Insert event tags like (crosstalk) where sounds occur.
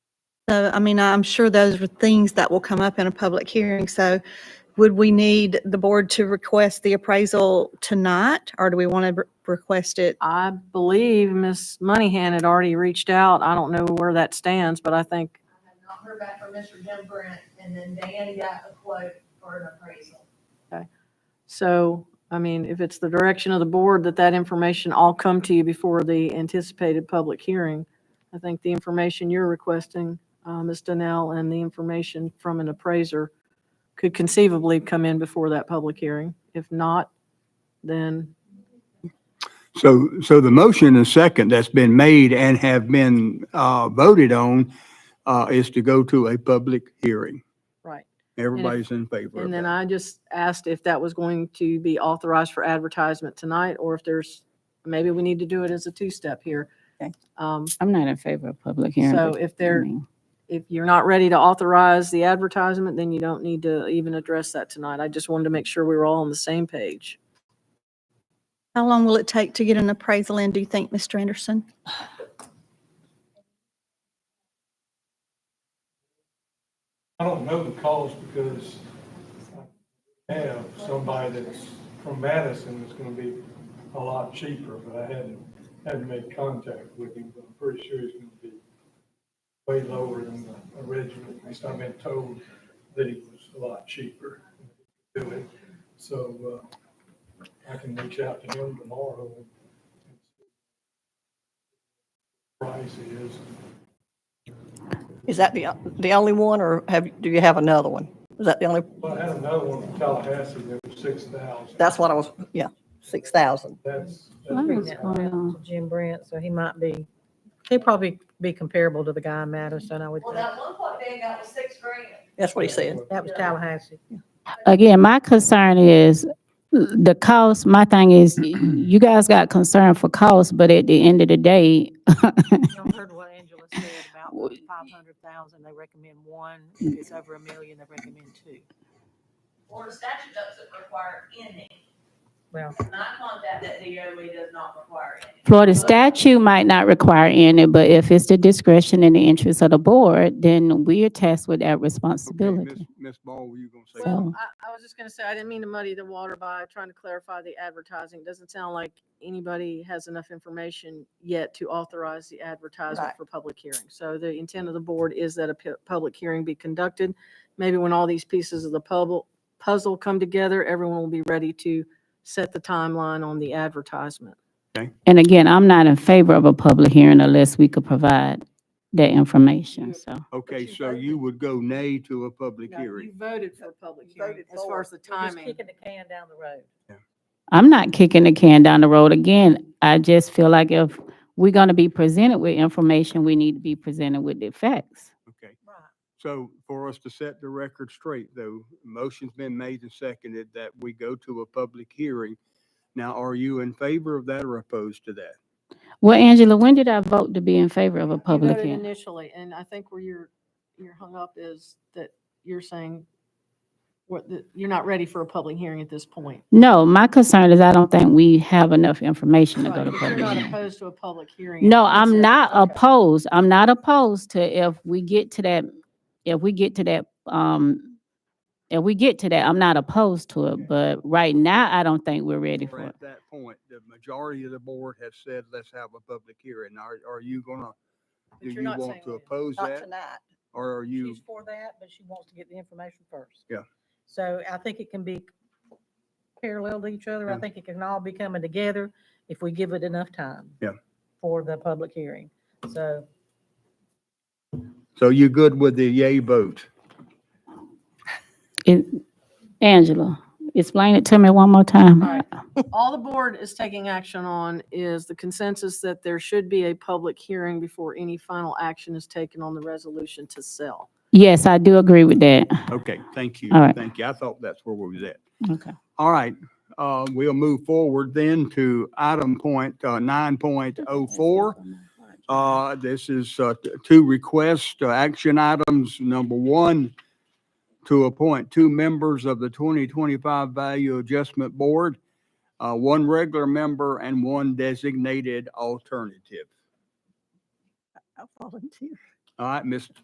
So, I mean, I'm sure those are things that will come up in a public hearing. So would we need the board to request the appraisal tonight? Or do we want to request it? I believe Ms. Moneyhan had already reached out. I don't know where that stands, but I think, I have not heard back from Mr. Jim Brent, and then Dan got a quote for an appraisal. so, I mean, if it's the direction of the board that that information all come to you before the anticipated public hearing, I think the information you're requesting, uh, Ms. Donnell, and the information from an appraiser could conceivably come in before that public hearing. If not, then, So, so the motion and second that's been made and have been uh, voted on uh, is to go to a public hearing. right. Everybody's in favor of And then that. I just asked if that was going to be authorized for advertisement tonight, or if there's, maybe we need to do it as a two-step here. Okay. Um, I'm not in favor of public hearing. So but, if I there- mean, If you're not ready to authorize the advertisement, then you don't need to even address that tonight. I just wanted to make sure we were all on the same page. How long will it take to get an appraisal in, do you think, Mr. Anderson? I don't know the cost because I have somebody that's from Madison that's gonna be a lot cheaper, but I hadn't, hadn't made contact with him, but I'm pretty sure he's gonna be way lower than the original, at least I've been told that he was a lot cheaper to do it. So, uh, I can reach out to him tomorrow and and see what price is. Is that the, the only one, or have, do you have another one? Is that the only, Well, I had another one in Tallahassee that was six thousand. that's what I was, yeah, six thousand. That's. I that's- was gonna- Jim Brent, so he might be, he'd probably be comparable to the guy in Madison, I would Well, think. that one quote Dan got was six grand. That's what he said. That was Tallahassee. Again, my concern is the cost, my thing is, you guys got concern for cost, but at the end of the day, Y'all heard what Angela said (laughs) about Well, y- five hundred thousand, they recommend one, if it's over a million, they recommend two. Florida statute doesn't require any, Well, not contact that DOE does not require any. Florida statute might not require any, but if it's the discretion and the interest of the board, then we are tasked with that Okay, responsibility. Miss- Miss Ball, were you going to say? something? Well, I, I was just gonna say, I didn't mean to muddy the water by trying to clarify the advertising. It Doesn't sound like anybody has enough information yet to authorize the advertisement Right. for public hearing. So the intent of the board is that a pu- public hearing be conducted. Maybe when all these pieces of the puzzle, puzzle come together, everyone will be ready to set the timeline on the advertisement. And again, I'm not in favor of a public hearing unless we could provide that information, so. Okay, you so voted. you would go nay to a public No, You hearing. voted for a public You hearing voted as far for as the we're just timing. kicking the can down the road. I'm not kicking the can down the road again. I just feel like if we're gonna be presented with information, we need to be presented with the facts. Okay. Right. So for us to set the record straight, though, motion's been made and seconded that we go to a public hearing. Now, are you in favor of that or opposed to that? Well, Angela, when did I vote to be in favor of a You public voted hearing? Initially, and I think where you're, you're hung up is that you're saying what, the- you're not ready for a public hearing at this point. No, my concern is I don't think we have enough information to go Right, to but You're public not hearing. opposed to a public hearing. No, That's it. I'm not Okay. opposed. I'm not opposed to if we get to that, if we get to that, um, if we get to that, I'm not opposed to it, but right now, I don't think we're ready Or for it. At that point, the majority of the board has said, let's have a public hearing. Are, are you gonna, But do you're you not want saying to when. oppose Not that? tonight. Or are you, She's for that, but she wants to get the information first. Yeah. So I think it can be parallel to each other. I Yeah. think it can all be coming together if we give it enough time. Yeah. For the public hearing. So so you good with the yay vote? It- Angela, explain it to me one more time. All (laughs) right. All the board is taking action on is the consensus that there should be a public hearing before any final action is taken on the resolution to sell. Yes, I do agree with that. Okay, thank you. All right. Thank you. I thought that's where we was at. Okay. All right, uh, we'll move forward then to item point, uh, nine point oh four. Uh, this is, uh, t- two requests, uh, action items. Number one, to appoint two members of the twenty twenty-five Value Adjustment Board, uh, one regular member and one designated alternative. I volunteer. All right, Ms.